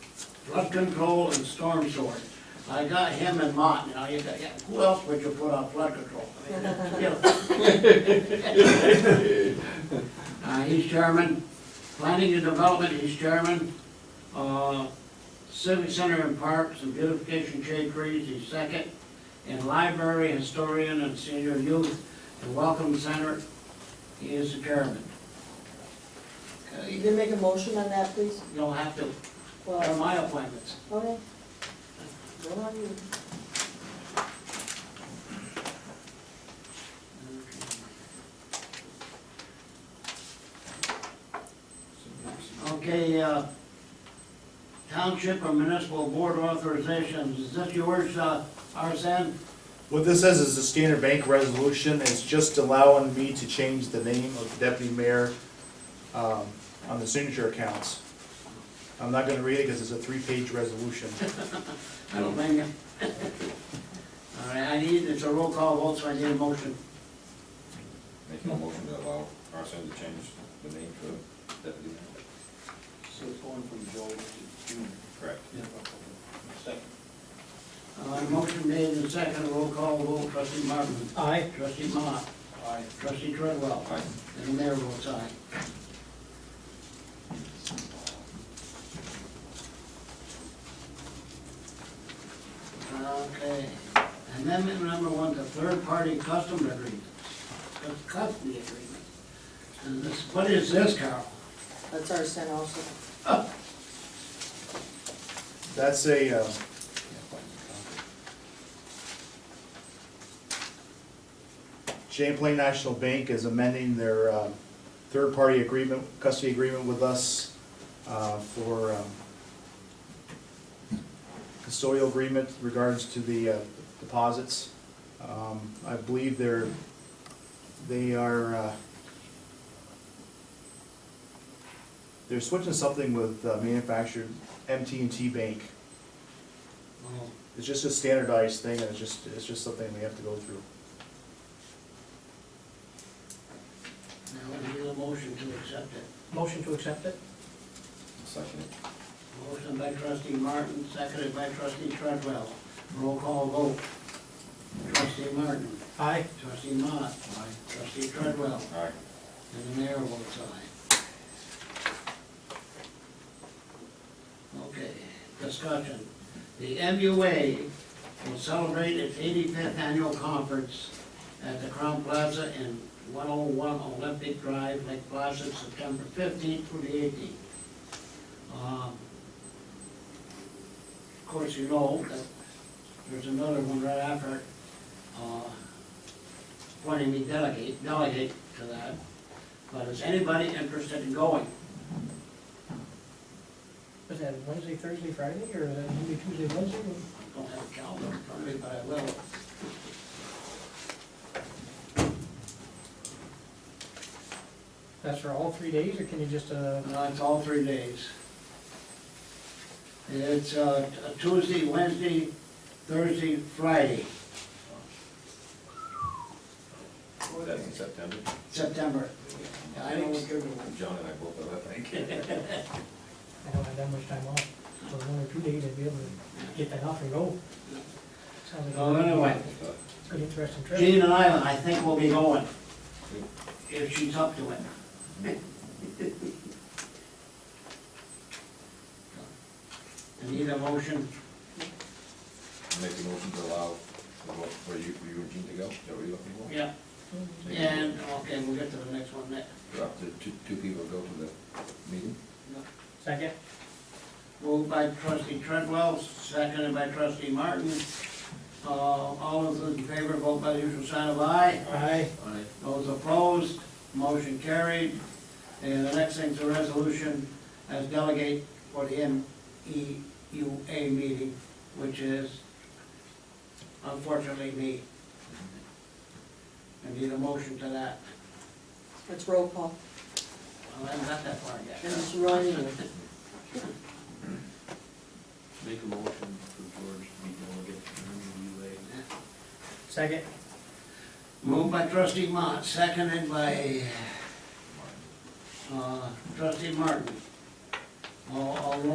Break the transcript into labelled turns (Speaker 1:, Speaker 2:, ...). Speaker 1: flood control and storm sewer. I got him and Mott, now you got, who else would you put on flood control? Uh, he's chairman, planning and development, he's chairman, uh, civic center and parks and beautification shade trees, he's second, and library historian and senior youth and welcome center, he is the chairman.
Speaker 2: You
Speaker 1: Okay,
Speaker 2: can make a motion on that, please?
Speaker 1: You'll have to, they're
Speaker 2: Well,
Speaker 1: my appointments.
Speaker 2: okay. Go on, you.
Speaker 1: Okay, uh, township or municipal board authorizations, is this yours, uh, Arson?
Speaker 3: What this is, is a standard bank resolution, it's just allowing me to change the name of the deputy mayor um, on the signature accounts. I'm not gonna read it because it's a three-page resolution.
Speaker 1: I don't blame you. All right, I need, it's a roll call vote, so I need a motion.
Speaker 4: Making a motion to allow Arson to change the name to deputy mayor.
Speaker 5: So it's going from Joe to June.
Speaker 4: Correct.
Speaker 5: Second.
Speaker 1: Uh, motion made and second, roll call vote, trustee Martin,
Speaker 5: Aye.
Speaker 1: trustee Mott,
Speaker 5: Aye.
Speaker 1: trustee Treadwell.
Speaker 4: Aye.
Speaker 1: And the mayor votes aye. Okay, amendment number one, the third-party custom agreement, Cus- custody agreement. And this, what is this, Carl?
Speaker 2: That's our send also.
Speaker 3: That's a, uh, Champlain National Bank is amending their um, third-party agreement, custody agreement with us uh, for um, custodial agreement regards to the uh, deposits. Um, I believe they're, they are, uh, they're switching something with uh, manufactured mt and T Bank.
Speaker 1: Oh,
Speaker 3: It's just a standardized thing, and it's just, it's just something we have to go through.
Speaker 1: Now, we need a motion to accept it.
Speaker 5: Motion to accept it?
Speaker 4: Second it.
Speaker 1: Motion by trustee Martin, seconded by trustee Treadwell. Roll call vote. Trustee Martin.
Speaker 5: Aye.
Speaker 1: Trustee Mott. Aye. Trustee Treadwell.
Speaker 4: Aye.
Speaker 1: And the mayor votes aye. Okay, discussion. The MUA will celebrate its eighty-fifth annual conference at the Crown Plaza in one oh one Olympic Drive, Lake Placid, September fifteenth through the eighteenth. Of course, you know that there's another one right after, it, uh, appointing me delegate, delegate to that. But is anybody interested in going?
Speaker 5: Is that Wednesday, Thursday, Friday, or is that Monday, Tuesday, Wednesday?
Speaker 1: I don't have a calendar in front of me, but I will.
Speaker 5: That's for all three days, or can you just, uh,
Speaker 1: Uh, It's all three days. It's uh, Tuesday, Wednesday, Thursday, Friday,
Speaker 4: That's in September.
Speaker 1: September. I don't think
Speaker 4: John and I both are that night.
Speaker 5: I don't have that much time off, so one or two days, I'd be able to get that off and go. Sounds like a-
Speaker 1: Oh,
Speaker 4: Uh,
Speaker 1: anyway.
Speaker 5: It's an interesting trip.
Speaker 1: Jean and I, I think we'll be going, if she's up to it. I need a motion,
Speaker 4: Make a motion to allow, for you, for you and Jean to go, is that what you're looking for?
Speaker 1: yeah,
Speaker 4: Make a-
Speaker 1: and, okay, we'll get to the next one next.
Speaker 4: Up to two, two people go to the meeting?
Speaker 5: Second?
Speaker 1: Moved by trustee Treadwell, seconded by trustee Martin. Uh, All of those in favor, vote by the usual sign of aye.
Speaker 5: Aye.
Speaker 1: Those opposed, motion carried. And the next thing's a resolution as delegate for the MEUA meeting, which is unfortunately me. I need a motion to that.
Speaker 2: It's roll call.
Speaker 1: Well, I haven't got that far
Speaker 2: And
Speaker 1: yet.
Speaker 2: it's running.
Speaker 6: Make a motion for George to be delegate to the MUA.
Speaker 5: Second?
Speaker 1: Moved by trustee Mott, seconded by uh, trustee Martin. All, all roll